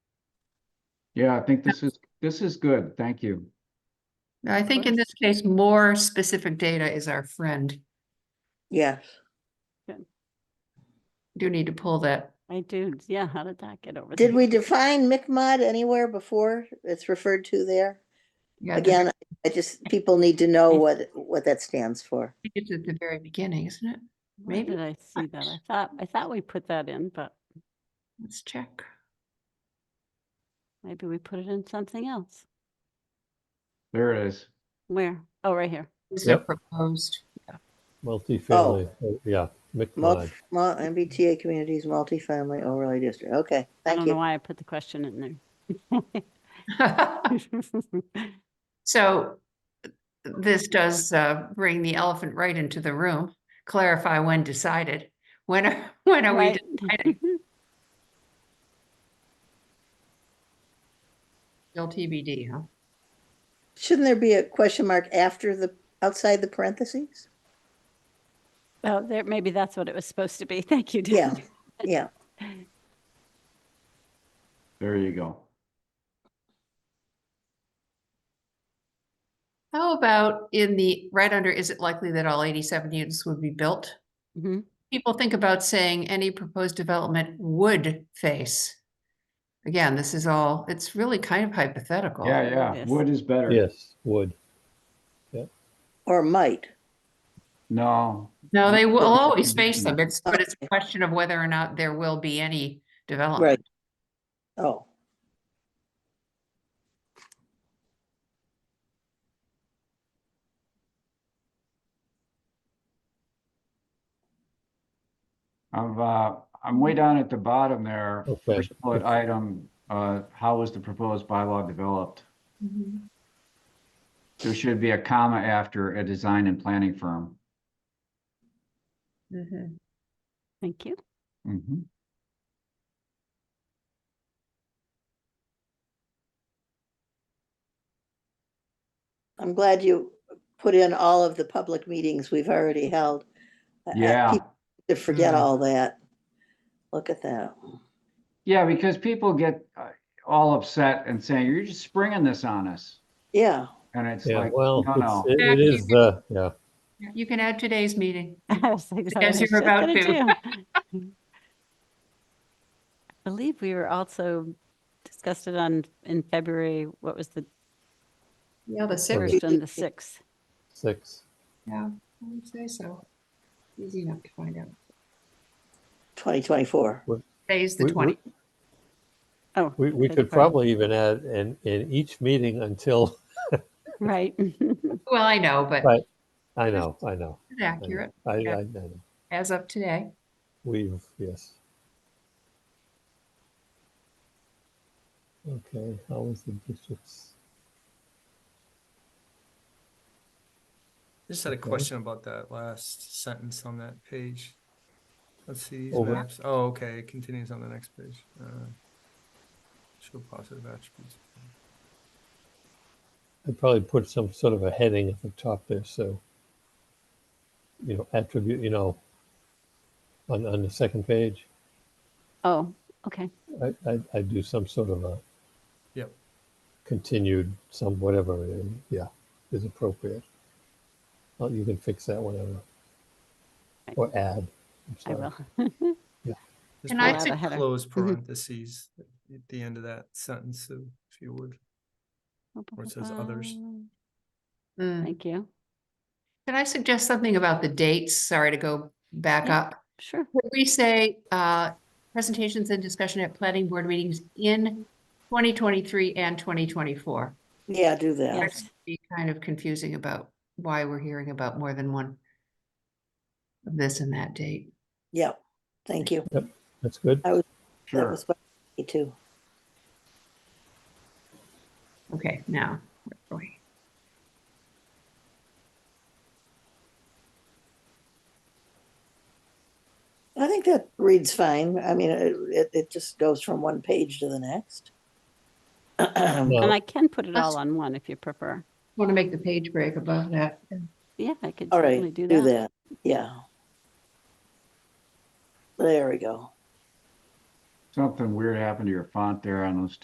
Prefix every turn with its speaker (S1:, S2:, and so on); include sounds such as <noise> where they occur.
S1: Yeah, I think this is, this is good. Thank you.
S2: No, I think in this case, more specific data is our friend.
S3: Yes.
S2: Do need to pull that.
S4: I do, yeah, how did that get over?
S3: Did
S4: there?
S3: we define MICMOD anywhere before it's referred to there?
S2: Yeah, the-
S3: Again, I just, people need to
S4: <laughs>
S3: know what, what that stands for.
S2: It's at the very beginning, isn't it?
S4: Where
S2: maybe
S4: did I see that? I thought, I thought we put that in, but
S2: Let's check.
S4: maybe we put it in something else.
S1: There it is.
S4: Where? Oh, right here.
S2: So
S5: Yep.
S2: proposed.
S1: Oh,
S5: Multi-family, uh, yeah,
S3: Mul-
S5: McBride.
S3: mul- MBTA communities, multifamily overlay district. Okay,
S4: I
S3: thank
S4: don't know
S3: you.
S4: why I put the question in
S3: <laughs>
S4: <laughs> there.
S2: <laughs> So this does uh, bring the elephant right into the room, clarify when decided. When, are- <laughs> when are we,
S4: Right.
S2: de- deciding? still TBD, huh?
S3: Shouldn't there be a question mark after the, outside the parentheses?
S4: Oh, there, maybe that's what it was supposed to be. <laughs> Thank you,
S3: Yeah.
S4: Dan.
S3: Yeah,
S1: There you go.
S2: How about in the, right under, is it likely that all 87 units would be built?
S4: Mhm.
S2: People think about saying any proposed development would face. Again, this is all, it's really kind of hypothetical.
S1: Yeah, yeah.
S4: Yes.
S1: Wood is better.
S5: Yes, would.
S3: or might.
S1: No,
S2: No, they will
S1: Well,
S2: always face them. It's, but it's a
S3: Okay.
S2: question of whether or not there will be any
S3: Right.
S2: development.
S3: Oh,
S1: I'm, uh, I'm way down at the bottom there.
S5: Okay.
S1: First bullet item, uh, how was the proposed bylaw developed?
S2: Mhm.
S1: There should be a comma after a design and planning firm.
S2: Mhm.
S4: Thank you. <laughs>
S1: Mhm.
S3: I'm glad you put in all of the public meetings we've already held. I- I-
S1: Yeah.
S3: people To forget
S2: Mm.
S4: Mm-hmm.
S3: all that. Look at that.
S1: Yeah, because people get uh, all upset and saying, you're just springing this on us.
S3: Yeah.
S1: And it's
S5: Yeah,
S1: like,
S5: well,
S1: no,
S5: it's-
S1: no.
S5: it it
S2: Yeah.
S5: is, uh, yeah.
S2: You can add today's meeting.
S4: I was like, "Is that what I
S2: As
S4: was
S2: you're
S4: just
S2: about
S4: gonna
S2: to. <laughs>
S4: do?" I believe we were also discussed it on, in February, what was the
S2: Yeah, the
S5: sixth.
S4: first and the sixth?
S5: Six.
S2: Yeah, I would say so. Easy enough to find out.
S3: 2024.
S2: Today's the
S5: We- we-
S2: 20.
S4: Oh.
S5: We, we
S4: okay,
S5: could
S4: pardon.
S5: probably even add in, in each meeting until, <laughs>
S4: Right. Mm-hmm.
S2: Well, I know, but
S5: Right. I know, I know.
S2: it's
S5: I know.
S2: accurate
S5: I,
S2: Yeah.
S5: I, I know.
S2: as of today.
S5: We've, yes. Okay, how is the districts?
S6: Just had a
S5: Okay.
S6: question about that last sentence on that page. Let's see these
S5: Over.
S6: maps. Oh, okay, it continues on the next page. Uh, show positive attributes.
S5: I'd probably put some sort of a heading at the top there, so. You know, attribute, you know, on, on the second page,
S4: Oh, okay.
S5: I, I, I'd do some sort of a
S6: Yep.
S5: continued, some whatever, uh, yeah, is appropriate. Well, you can fix that whenever.
S4: Right.
S5: Or add. I'm
S4: I
S5: sorry.
S4: will.
S6: Just
S2: Can I
S6: put
S4: add a header?
S6: close
S5: Mm-hmm.
S6: parentheses at the end of that sentence, so if you would. Or it says others.
S2: Mm.
S4: Thank you.
S2: Can I suggest something about the dates? Sorry to go back
S4: Yeah.
S2: up.
S4: Sure.
S2: Could we say, uh, presentations and discussion at planning board meetings in 2023 and 2024?
S3: Yeah, do that.
S4: Yes.
S2: Be kind of confusing about why we're hearing about more than one of this and that date.
S3: Yeah. Thank you.
S5: That's good.
S3: That
S1: Sure.
S3: was what me too.
S2: Okay, now. where are we?
S3: I think that reads fine. I mean, it, it, it just goes from one page to the next.
S5: Well,
S4: And I can put it all
S2: That's-
S4: on one if you prefer.
S2: Want to make the page break above that.
S4: Yeah, I could
S3: All
S4: certainly
S3: right,
S4: do
S3: do
S4: that.
S3: that. Yeah. There we go.
S1: Something weird happened to your font there on those